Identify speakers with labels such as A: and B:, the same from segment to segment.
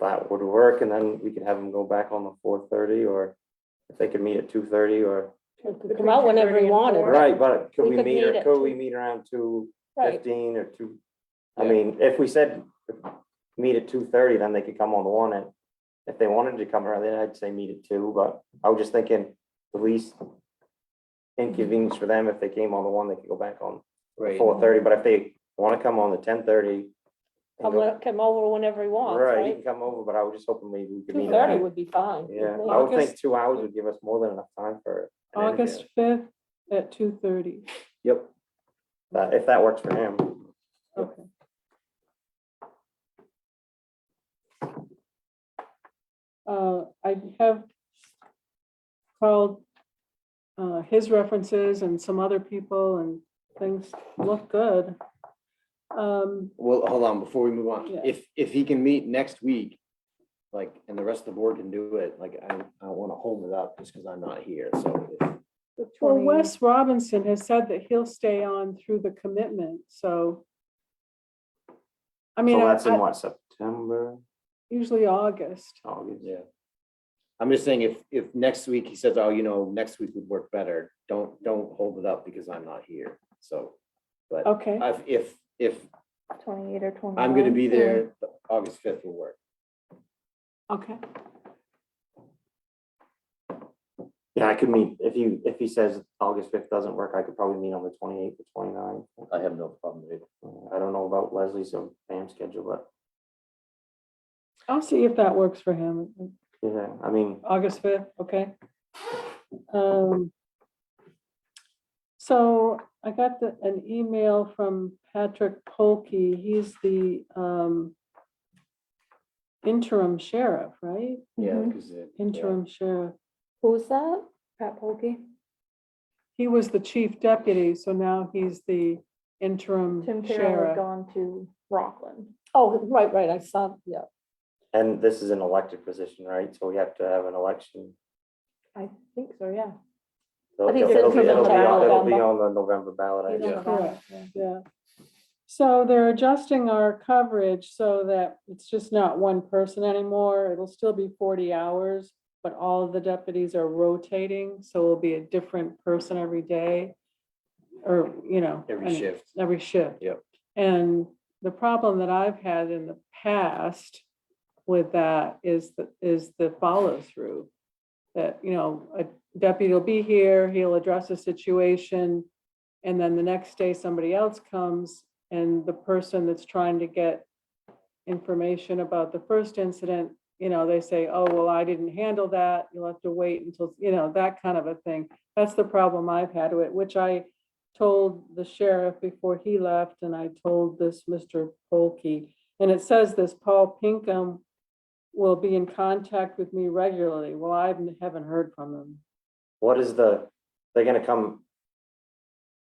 A: that would work, and then we could have them go back on the four thirty, or if they could meet at two thirty, or,
B: We could Come out whenever you wanted.
A: right, but could
B: We
A: we
B: could
A: meet,
B: meet
A: or
B: at
A: could
B: two.
A: we meet around two
B: Right,
A: fifteen or two? I mean, if we said meet at two thirty, then they could come on the one, and if they wanted to come around, then I'd say meet at two, but I was just thinking the least inconvenience for them, if they came on the one, they could go back on
C: Right.
A: four thirty, but if they wanna come on the ten thirty.
B: come, o- come over whenever you want,
A: Right, you
B: right?
A: can come over, but I was just hoping maybe we could
B: Two
A: meet.
B: thirty
A: around-
B: would be fine. with
A: Yeah,
B: me.
A: I would think two hours would give us more than enough time for. an interview.
D: August fifth at two thirty.
A: Yep. That, if that works for him.
D: Okay. Uh, I have called, uh, his references and some other people and things look good. Um,
C: Well, hold on, before we move on,
D: Yeah.
C: if, if he can meet next week, like, and the rest of the board can do it, like, I, I don't wanna hold it up just because I'm not here, so. if-
D: well, Wes Robinson has said that he'll stay on through the commitment, so. I mean,
A: So
D: I-
A: that's in
D: I-
A: what, September,
D: usually August.
A: August?
C: Yeah. I'm just saying, if, if next week he says, oh, you know, next week would work better, don't, don't hold it up because I'm not here, so. But
D: Okay,
C: I've, if, if
E: Twenty-eight or twenty-nine.
C: I'm gonna be there, August fifth will work.
D: okay.
A: Yeah, I could meet, if you, if he says August fifth doesn't work, I could probably meet on the twenty-eighth or 29th.
C: I have no problem with it.
A: Uh, I don't know about Leslie's or Pam's schedule, but,
D: I'll see if that works for him.
A: yeah, I mean,
D: August fifth, okay. Um, So I got the, an email from Patrick Polkey. He's the um interim sheriff, right?
C: Yeah,
E: Mhm.
C: because it. yeah.
D: Mm-hmm. Interim sheriff.
E: Who's that? Pat Polkey.
D: He was the chief deputy, so now he's the interim
E: Tim Farrell had
D: sheriff.
E: gone to Rockland.
B: Oh, right, right, I saw, yeah.
A: and this is an elected position, right? So we have to have an election.
E: I think so, yeah.
A: So
B: I think
A: it'll-
B: it's in
A: it'll be- it'll be on- It'll be
B: November.
A: on the November ballot. I
E: He's on
A: guess.
E: the
D: Yeah.
E: ballot, yeah.
D: Yeah. So they're adjusting our coverage so that it's just not one person anymore. It'll still be forty hours, but all of the deputies are rotating, so it'll be a different person every day. Or, you know.
C: Every
D: and-
C: shift.
D: Every shift.
C: Yep.
D: And the problem that I've had in the past with that is the, is the follow through. That, you know, a deputy will be here, he'll address a situation. And then the next day, somebody else comes and the person that's trying to get information about the first incident, you know, they say, oh, well, I didn't handle that. You'll have to wait until, you know, that kind of a thing. That's the problem I've had with, it, which I told the sheriff before he left and I told this Mr. Polkey. And it says this, Paul Pinkham will be in contact with me regularly. Well, I haven't heard from him.
A: What is the, they're gonna come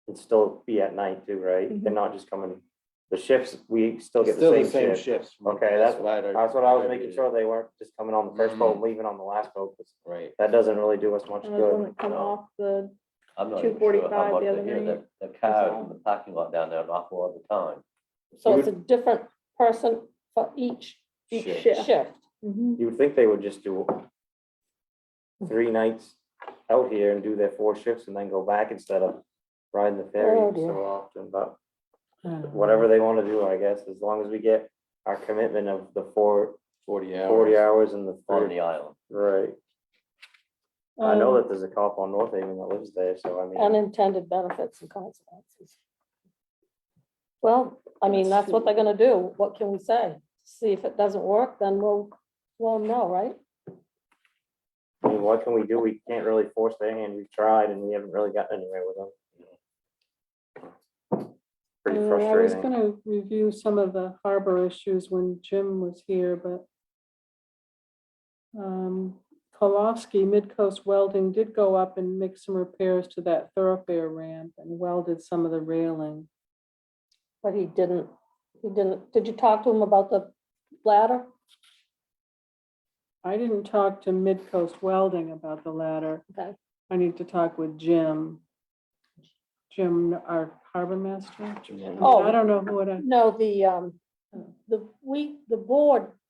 A: and still be at night too,
B: Mm-hmm.
A: right? They're not just coming, the shifts, we still get
C: Still
A: the same shift.
C: shifts.
A: Okay, that's-
C: what I.
A: That's what I was making sure they weren't just coming on the first boat, and leaving on the last boat, 'cause
C: Right.
A: that doesn't really do us much
E: And those one
A: good.
E: that come
F: No.
E: off the,
F: I'm not even sure
E: 2:45
F: how
E: the
F: much
E: other
F: they hear
E: night.
F: the, the cars in the parking lot down there an awful lot of the time.
B: So it's a different person for each
E: each
F: Shift.
E: shift.
B: shift.
E: Mhm.
A: You would think they would just do three nights out here and do their four shifts and then go back instead of riding the ferry
B: Oh, dear.
A: so often, but whatever they wanna do, I guess, as long as we get our commitment of the four,
C: Forty
A: forty hours and the
F: On
A: thirty,
F: the island.
A: right? I know
D: Um,
A: that there's a cop on North Haven that lives there, so I mean,
B: Unintended benefits and consequences. Well, I mean, that's what they're gonna do. What can we say? See if it doesn't work, then we'll, we'll know, right?
A: I mean, what can we do? We can't really force their hand. We've tried and we haven't really gotten anywhere with them. Pretty
D: Uh, I was
A: frustrating.
D: gonna review some of the harbor issues when Jim was here, but um, Kolofsky Midcoast Welding did go up and make some repairs to that thoroughfare ramp and welded some of the railing.
B: But he didn't, he didn't, did you talk to him about the ladder?
D: I didn't talk to Midcoast Welding about the ladder.
B: Okay.
D: I need to talk with Jim. Jim, our harbor master.
C: Jim.
D: I don't know who it,
B: No, the, um, the, we, the board